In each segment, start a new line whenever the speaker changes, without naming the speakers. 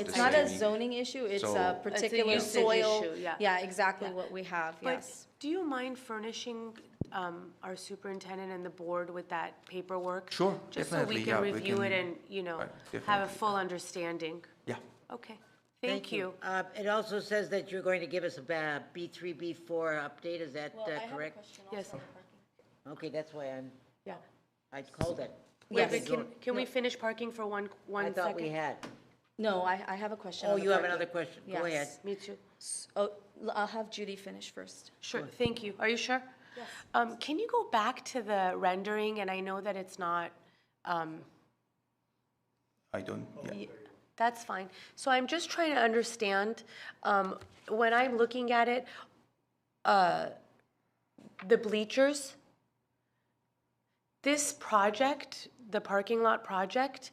It's
the
not a
same.
zoning issue, it's
So-
a
It's a
particular
usage
soil.
issue, yeah.
Yeah, exactly what we have,
But
yes.
do you mind furnishing um, our superintendent and the board with that paperwork?
Sure,
Just so
definitely,
we
yeah,
can
we
review it
can-
and, you know,
Right,
have a
definitely.
full understanding.
Yeah,
Okay, thank you.
Uh, It also says that you're going to give us a ba- B3, B4 update, is that uh, correct?
Yes,
Okay, that's why I'm,
yeah.
I called it.
Wait,
Yes.
but can, can we finish parking for one,
I
one
thought we
second?
had.
No, I, I have a question.
Oh,
on the
you have
parking.
another question? Go ahead.
Yes.
Me too.
S- Oh, l- I'll have Judy finish first.
Sure, thank you. Are you sure? Yes. Um, can you go back to the rendering? And I know that it's not, um,
I don't, yeah.
That's fine. So I'm just trying to understand, um, when I'm looking at it, uh, the bleachers, this project, the parking lot project,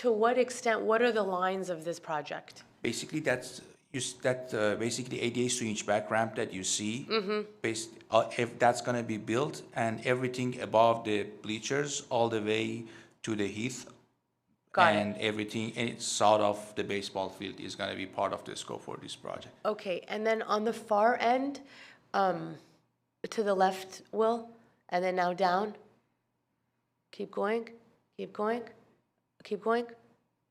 to what extent, what are the lines of this project?
Basically, that's, you, s- that, uh, basically ADA switch back ramp that you see.
Mm-hmm.
Based, uh, if that's gonna be built and everything above the bleachers all the way to the heath.
Got it.
And everything, and it's south of the baseball field is gonna be part of the scope for this project.
Okay, and then on the far end, um, to the left, Will, and then now down. Keep going, keep going, keep going.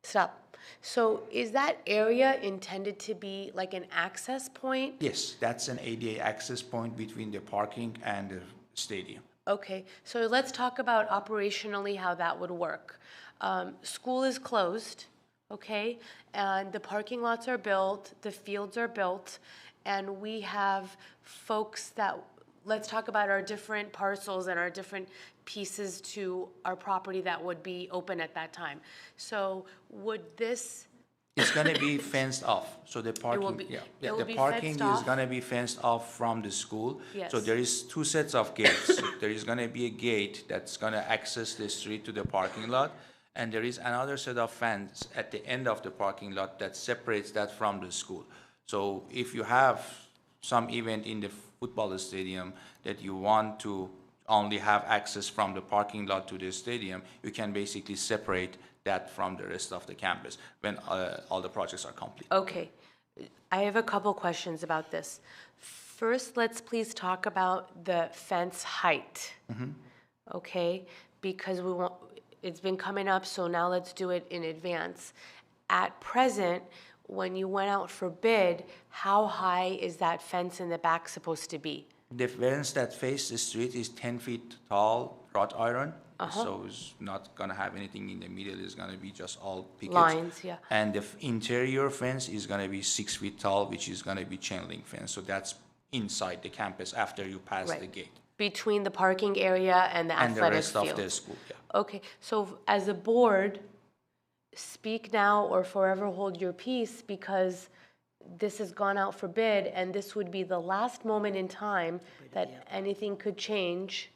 Stop. So is that area intended to be like an access point?
Yes, that's an ADA access point between the parking and the stadium.
Okay, so let's talk about operationally how that would work. Um, School is closed, okay? And the parking lots are built, the fields are built, and we have folks that, let's talk about our different parcels and our different pieces to our property that would be open at that time. So would this,
It's gonna be fenced off, so the
be-
parking, yeah,
it
yeah,
will
the
be
parking
fenced
is
off?
gonna be fenced off from the school. So
Yes.
there is two sets of gates. There is gonna be a gate that's gonna access the street to the parking lot, and there is another set of fence at the end of the parking lot that separates that from the school. So if you have some event in the football stadium that you want to only have access from the parking lot to the stadium, you can basically separate that from the rest of the campus when uh, all the projects are complete.
okay, I have a couple questions about this. First, let's please talk about the fence height.
Mm-hmm.
okay? Because we want, it's been coming up, so now let's do it in advance. At present, when you went out for bid, how high is that fence in the back supposed to be?
The fence that faces the street is ten feet tall, wrought iron.
Uh-huh.
So it's not gonna have anything in the middle, it's gonna be just all pickets.
Lines, yeah.
And the f- interior fence is gonna be six feet tall, which is gonna be chain link fence, so that's inside the campus after you pass the
Right.
gate.
Between the parking area and the
And the
athletic
rest of the
field?
school, yeah.
Okay, so as a board, speak now or forever hold your peace because this has gone out for bid and this would be the last moment in time that anything could change.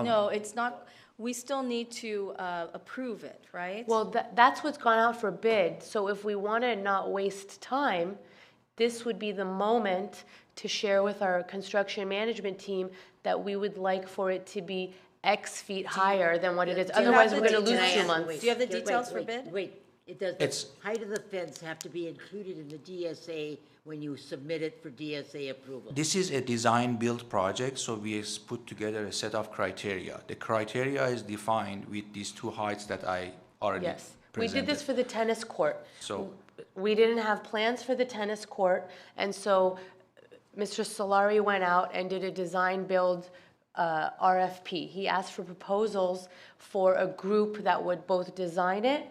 No, it's not, we still need to uh, approve it, right?
Well, that, that's what's gone out for bid, so if we want to not waste time, this would be the moment to share with our construction management team that we would like for it to be X feet higher than what it is,
you have
otherwise
the
we're going to
details?
lose two
Can I ask-
months.
Do you have the
Wait, wait,
details for
wait,
bid?
Wait, it does,
It's-
the height of the fence have to be included in the DSA when you submit it for DSA approval.
This is a design-build project, so we has put together a set of criteria. The criteria is defined with these two heights that I already
Yes,
presented.
we did this for the tennis court.
So-
We didn't have plans for the tennis court, and so Mr. Solari went out and did a design-build uh, RFP. He asked for proposals for a group that would both design it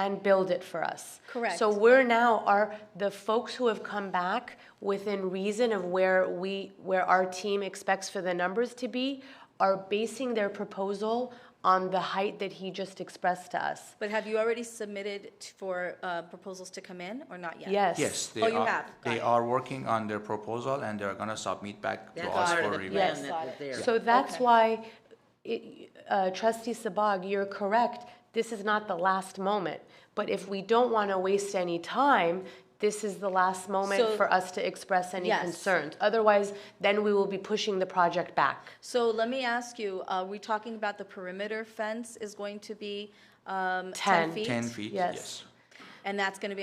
and build it for us.
Correct.
So we're now, are the folks who have come back within reason of where we, where our team expects for the numbers to be, are basing their proposal on the height that he just expressed to us.
But have you already submitted t- for uh, proposals to come in or not yet?
Yes.
Yes,
Oh,
they
you
are,
have. Got
they
it.
are working on their proposal and they're gonna submit back to
That's
us
part of
for
the
review.
plan that was there.
So that's why, it- uh, trustee Sabag, you're correct, this is not the last moment. But if we don't want to waste any time, this is the last moment
So-
for us to express any
Yes.
concerns. Otherwise, then we will be pushing the project back.
So let me ask you, uh, are we talking about the perimeter fence is going to be um, 10
Ten.
feet?
Ten feet,
Yes.
yes.
And that's going to be